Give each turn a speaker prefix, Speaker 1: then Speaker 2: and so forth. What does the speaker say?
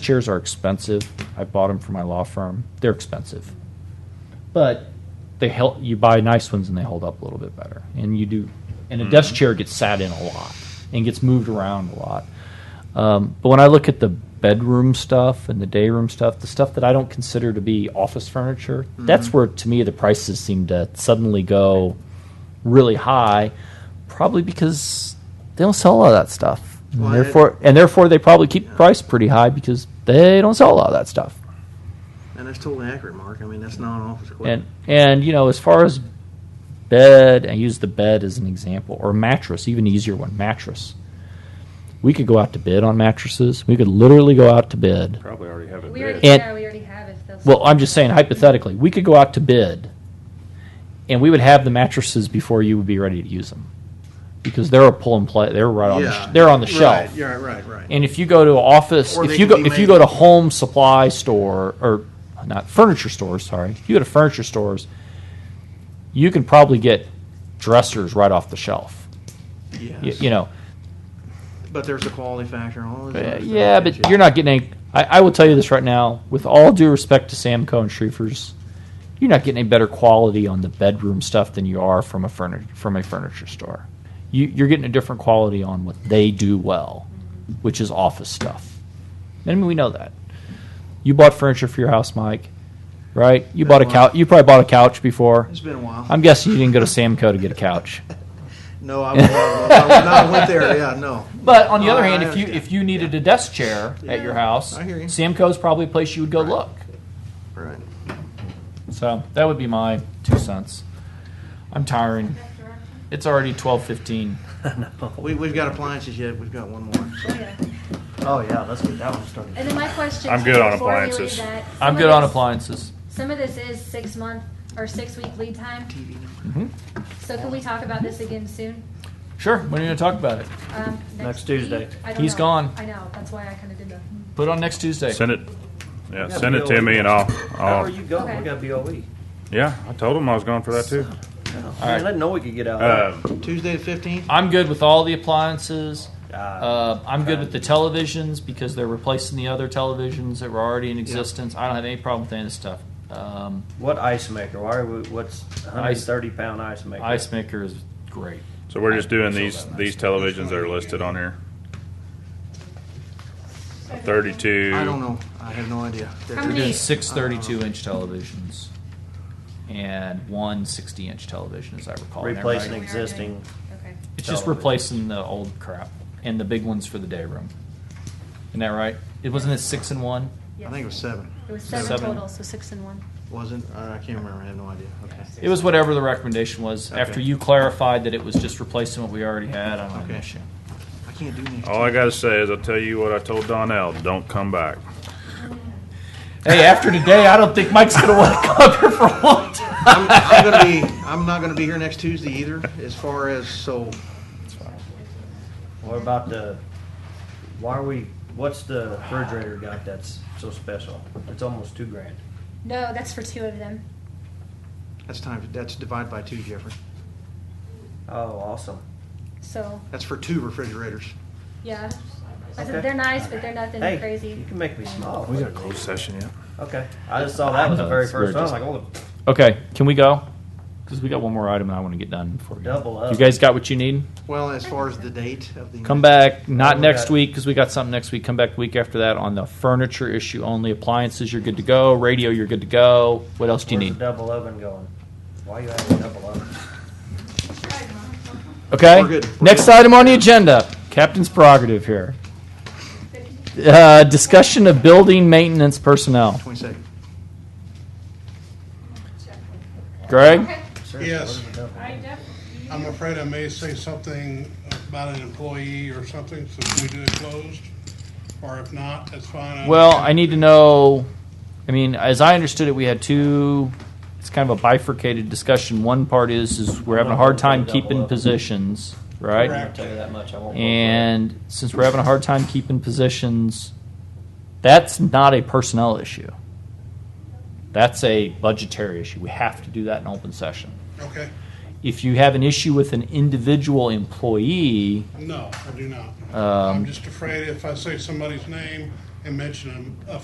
Speaker 1: Chairs are expensive. I bought them for my law firm. They're expensive, but they help. You buy nice ones and they hold up a little bit better. And you do. And a desk chair gets sat in a lot and gets moved around a lot. Um, but when I look at the bedroom stuff and the day room stuff, the stuff that I don't consider to be office furniture, that's where to me the prices seem to suddenly go really high. Probably because they don't sell a lot of that stuff. And
Speaker 2: Well,
Speaker 1: therefore, and therefore they probably keep the price pretty high because they don't sell a lot of that stuff.
Speaker 2: And that's totally accurate, Mark. I mean, that's not office
Speaker 1: And
Speaker 2: equipment.
Speaker 1: and you know, as far as bed, I use the bed as an example, or mattress, even easier one, mattress. We could go out to bid on mattresses. We could literally go out to bid.
Speaker 3: Probably already have it
Speaker 4: We
Speaker 3: bid.
Speaker 4: already,
Speaker 1: And-
Speaker 4: yeah, we already have if they'll.
Speaker 1: Well, I'm just saying hypothetically, we could go out to bid, and we would have the mattresses before you would be ready to use them, because they're a pull and play. They're right on. The sh- they're on the shelf.
Speaker 2: Right, yeah, right, right.
Speaker 1: And if you go to an office,
Speaker 2: Or
Speaker 1: if
Speaker 2: they
Speaker 1: you go
Speaker 2: can be
Speaker 1: if you
Speaker 2: made-
Speaker 1: go to home supply store or not furniture stores, sorry, if you go to furniture stores, you can probably get dressers right off the shelf. Y-
Speaker 2: yes.
Speaker 1: You, know,
Speaker 2: but there's a quality factor. and All this
Speaker 1: Uh,
Speaker 2: other
Speaker 1: yeah,
Speaker 2: stuff
Speaker 1: but
Speaker 2: that
Speaker 1: you're not getting. Any, I, I will tell you this right now, with all due respect to Samco and Schrieffer's, you're not getting any better quality on the bedroom stuff than you are from a furniture from a furniture store. You, you're getting a different quality on what they do well, which is office stuff. I mean, we know that. You bought furniture for your house, Mike, right? You bought a couch. You probably bought a couch before.
Speaker 2: It's been a while.
Speaker 1: I'm guessing you didn't go to Samco to get a couch.
Speaker 2: no, I, would not- I would not went there. Yeah, no.
Speaker 1: But on the other
Speaker 2: I-
Speaker 1: hand,
Speaker 2: Oh, I
Speaker 1: if you
Speaker 2: understand.
Speaker 1: if you needed a desk chair at your house,
Speaker 2: I hear you.
Speaker 1: Samco's probably a place you would go look.
Speaker 2: Right.
Speaker 1: So that would be my two cents. I'm tiring. It's already twelve fifteen.
Speaker 2: We, we've got appliances yet. We've got one more.
Speaker 4: Oh, yeah.
Speaker 5: Oh, yeah, let's get that one started.
Speaker 4: And then my question.
Speaker 3: I'm
Speaker 4: too,
Speaker 3: good on
Speaker 4: before you leave
Speaker 3: appliances.
Speaker 4: that, some
Speaker 1: I'm
Speaker 2: Oh,
Speaker 4: of
Speaker 1: good on
Speaker 4: this-
Speaker 1: appliances.
Speaker 4: Some of this is six month or six week lead time.
Speaker 1: Mm-hmm.
Speaker 4: So can we talk about this again soon?
Speaker 1: Sure. When are you gonna talk about it?
Speaker 4: Um,
Speaker 5: Next Tuesday.
Speaker 4: week? I don't
Speaker 1: He's
Speaker 4: know.
Speaker 1: gone.
Speaker 4: I know, that's why I kinda did the.
Speaker 1: Put it on next Tuesday.
Speaker 3: Send it, yeah,
Speaker 5: Yeah,
Speaker 3: send it
Speaker 5: BOE.
Speaker 3: to me and I'll,
Speaker 1: Oh.
Speaker 5: How are
Speaker 3: I'll,
Speaker 5: you going?
Speaker 4: Okay.
Speaker 5: We got BOE.
Speaker 3: yeah, I told him I was going for that too.
Speaker 5: I didn't know we could get out.
Speaker 1: Uh,
Speaker 5: of
Speaker 3: Um,
Speaker 2: Tuesday the 15th.
Speaker 1: I'm good with all the appliances.
Speaker 5: that. Uh,
Speaker 1: Uh, I'm good with the televisions because they're replacing the other televisions that were already in existence. I don't have any problem with any of this stuff. Um,
Speaker 5: What ice maker? Why are we, what's 130 pound ice maker?
Speaker 1: ice maker is great.
Speaker 3: so we're just doing these, these televisions that are listed on here. Thirty-two.
Speaker 2: I don't know. I have no idea.
Speaker 4: How
Speaker 1: We're
Speaker 4: many-
Speaker 1: doing six 32 inch televisions and one 60 inch television, as I recall. Am I
Speaker 5: Replacing
Speaker 1: right?
Speaker 5: existing.
Speaker 4: Okay.
Speaker 1: It's just
Speaker 5: television.
Speaker 1: replacing the old crap and the big ones for the day room. Isn't that right? It wasn't it six and one.
Speaker 2: I think it was seven.
Speaker 4: It was
Speaker 1: Seven.
Speaker 4: seven total, so six and one.
Speaker 2: Wasn't? Uh, I can't remember. I have no idea. Okay.
Speaker 1: It was whatever the recommendation was.
Speaker 2: Okay.
Speaker 1: After you clarified that it was just replacing what we already had, "Oh, I don't have an
Speaker 2: Okay.
Speaker 1: issue.
Speaker 2: I can't do anything.
Speaker 3: All I gotta say is I'll tell you what I told Donnell, don't come back.
Speaker 1: Hey, after today, I don't think Mike's gonna want to come here for a long time.
Speaker 2: I'm, I'm gonna be. I'm not gonna be here next Tuesday either. As far as so,
Speaker 5: What about the, why are we, what's the refrigerator got that's so special? It's almost two grand.
Speaker 4: No, that's for two of them.
Speaker 2: that's time. That's divided by two, Jeffrey.
Speaker 5: Oh, awesome.
Speaker 4: So,
Speaker 2: That's for two refrigerators.
Speaker 4: yeah. I
Speaker 5: Okay.
Speaker 4: said, they're nice, but they're nothing
Speaker 5: Hey, you
Speaker 4: crazy. Um,
Speaker 5: can make me smile.
Speaker 3: We got a closed session yet?
Speaker 5: Okay. I just saw that was the
Speaker 1: No,
Speaker 5: very
Speaker 1: it's- we're
Speaker 5: first one. I'm
Speaker 1: just-
Speaker 5: like, oh,
Speaker 1: Okay, can we go? Because we got one more item and I want to get done before we go.
Speaker 5: Double up.
Speaker 1: You guys got what you need?
Speaker 2: Well, as far as the date of the
Speaker 1: Come back, not
Speaker 5: we
Speaker 1: next
Speaker 5: got-
Speaker 1: week because we got something next week. Come back the week after that on the furniture issue only. Appliances, you're good to go. Radio, you're good to go. What else do you
Speaker 5: where's the
Speaker 1: need?
Speaker 5: double oven going? Why you having a double oven?
Speaker 1: Okay.
Speaker 2: We're good. We're
Speaker 1: Next item on the agenda, captain's prerogative here. Uh, discussion of building maintenance personnel.
Speaker 2: Twenty second.
Speaker 1: Greg,
Speaker 5: Seriously,
Speaker 6: Yes.
Speaker 5: where's the double oven?
Speaker 6: I'm afraid I may say something about an employee or something, so we do it closed, or if not, that's fine. I
Speaker 1: well,
Speaker 6: understand.
Speaker 1: I need to know. I mean, as I understood it, we had two. It's kind of a bifurcated discussion. One part is is we're having a hard time keeping positions, right?
Speaker 5: I won't tell you that much. I won't. go for it.
Speaker 1: And since we're having a hard time keeping positions, that's not a personnel issue. That's a budgetary issue. We have to do that in open session.
Speaker 6: Okay,
Speaker 1: If you have an issue with an individual employee,
Speaker 6: no, I do not.
Speaker 1: Um,
Speaker 6: I'm just afraid if I say somebody's name, and mention a- a